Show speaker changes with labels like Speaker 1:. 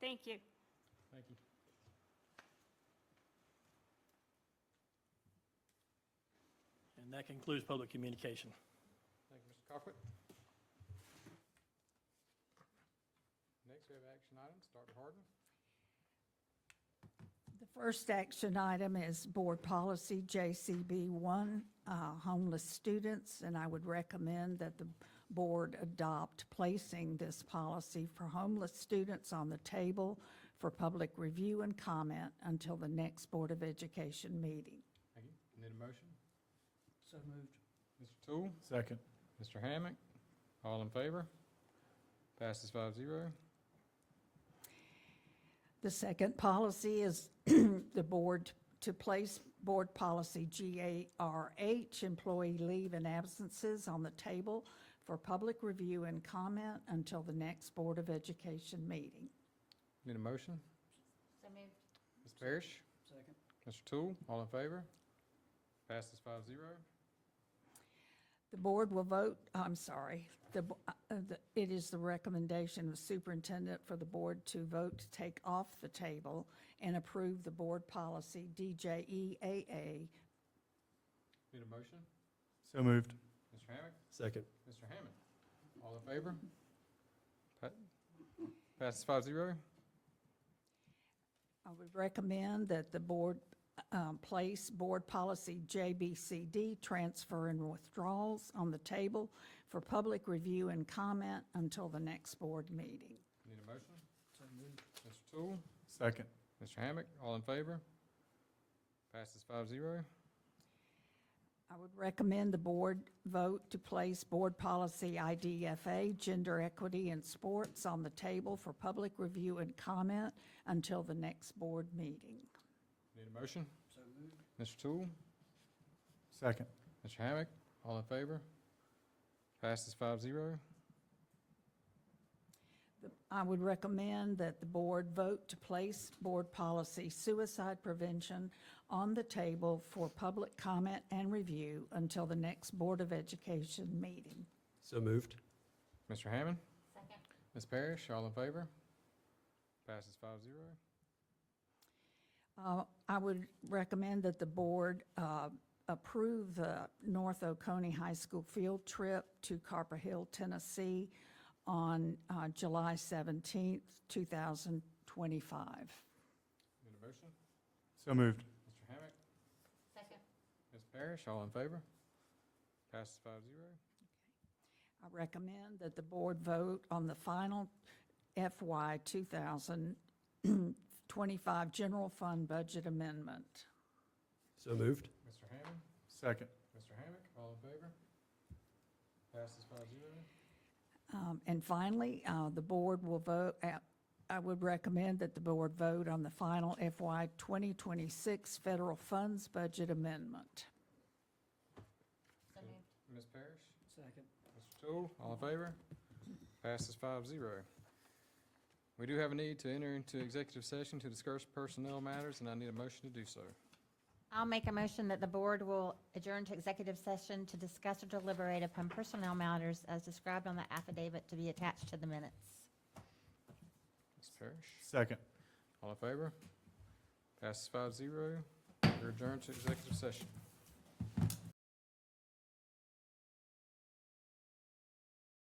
Speaker 1: Thank you.
Speaker 2: Thank you.
Speaker 3: And that concludes public communication.
Speaker 2: Thank you, Mr. Cockwood. Next, we have action items. Dr. Harden.
Speaker 4: The first action item is Board Policy JCB 1, uh, homeless students, and I would recommend that the board adopt placing this policy for homeless students on the table for public review and comment until the next Board of Education meeting.
Speaker 2: Thank you. Need a motion?
Speaker 3: So moved.
Speaker 2: Mr. Tool,
Speaker 5: Second.
Speaker 2: Mr. Hammack, all in favor? Passes five zero.
Speaker 4: The second policy is the board to place Board Policy GARH, employee leave and absences, on the table for public review and comment until the next Board of Education meeting.
Speaker 2: Need a motion?
Speaker 1: So moved.
Speaker 2: Ms. Parrish,
Speaker 3: Second.
Speaker 2: Mr. Tool, all in favor? Passes five zero.
Speaker 4: The board will vote, I'm sorry, the, bo- uh, uh, the- it is the recommendation of superintendent for the board to vote to take off the table and approve the board policy E DJEAA
Speaker 2: Need a motion?
Speaker 5: So moved.
Speaker 2: Mr. Hammack,
Speaker 5: Second.
Speaker 2: Mr. Hammond, all in favor? Pa- Passes five zero.
Speaker 4: I would recommend that the board um, place Board Policy JBCD, Transfer and Withdrawals, on the table for public review and comment until the next board meeting.
Speaker 2: Need a motion? Mr. Tool,
Speaker 5: Second.
Speaker 2: Mr. Hammack, all in favor? Passes five zero.
Speaker 4: I would recommend the board vote to place Board Policy IDFA, Gender Equity in Sports, on the table for public review and comment until the next board meeting.
Speaker 2: Need a motion? Mr. Tool,
Speaker 5: Second.
Speaker 2: Mr. Hammack, all in favor? Passes five zero.
Speaker 4: I would recommend that the board vote to place board policy suicide prevention on the table for public comment and review until the next Board of Education meeting.
Speaker 5: So moved.
Speaker 2: Mr. Hammond,
Speaker 1: Second.
Speaker 2: Ms. Parrish, all in favor? Passes five zero.
Speaker 4: Uh, I would recommend that the board uh, approve the North Oconee High School field trip to Carper Hill, Tennessee on uh, July 17th, 2025.
Speaker 2: Need a motion?
Speaker 5: So moved.
Speaker 2: Mr. Hammack,
Speaker 1: Second.
Speaker 2: Ms. Parrish, all in favor? Passes five zero.
Speaker 4: I recommend that the board vote on the final FY 2025 general fund budget amendment.
Speaker 5: So moved.
Speaker 2: Mr. Hammond,
Speaker 5: Second.
Speaker 2: Mr. Hammack, all in favor? Passes five zero.
Speaker 4: Um, And finally, uh, the board will vote, uh, I would recommend that the board vote on the final FY 2026 federal funds budget amendment.
Speaker 1: So moved.
Speaker 2: Ms. Parrish,
Speaker 3: Second.
Speaker 2: Mr. Tool, all in favor? Passes five zero. We do have a need to enter into executive session to discuss personnel matters, and I need a motion to do so.
Speaker 1: I'll make a motion that the board will adjourn to executive session to discuss or deliberate upon personnel matters as described on the affidavit to be attached to the minutes.
Speaker 2: Ms. Parrish?
Speaker 5: Second.
Speaker 2: All in favor? Passes five zero. We're adjourned to executive session.